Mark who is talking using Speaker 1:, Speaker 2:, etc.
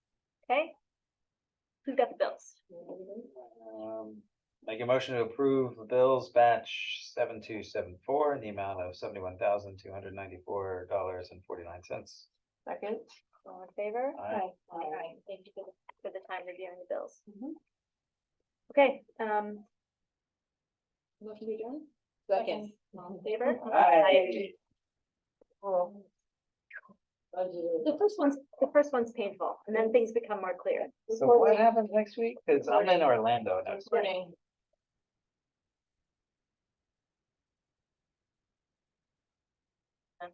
Speaker 1: Okay? Who's got the bills?
Speaker 2: Um, Make a motion to approve the bills batch seven two seven four in the amount of seventy-one thousand, two hundred ninety-four dollars and forty-nine cents.
Speaker 3: Second.
Speaker 1: All in favor?
Speaker 2: Aye.
Speaker 1: Alright, thank you for the, for the time reviewing the bills.
Speaker 3: Mhm.
Speaker 1: Mm-hmm. Okay, um,
Speaker 3: Motion to adjourn?
Speaker 1: Second. all in favor?
Speaker 3: Aye.
Speaker 1: The first one's, the first one's painful, and then things become more clear.
Speaker 2: So what happens next week? Cause I'm in Orlando next week.
Speaker 3: Morning.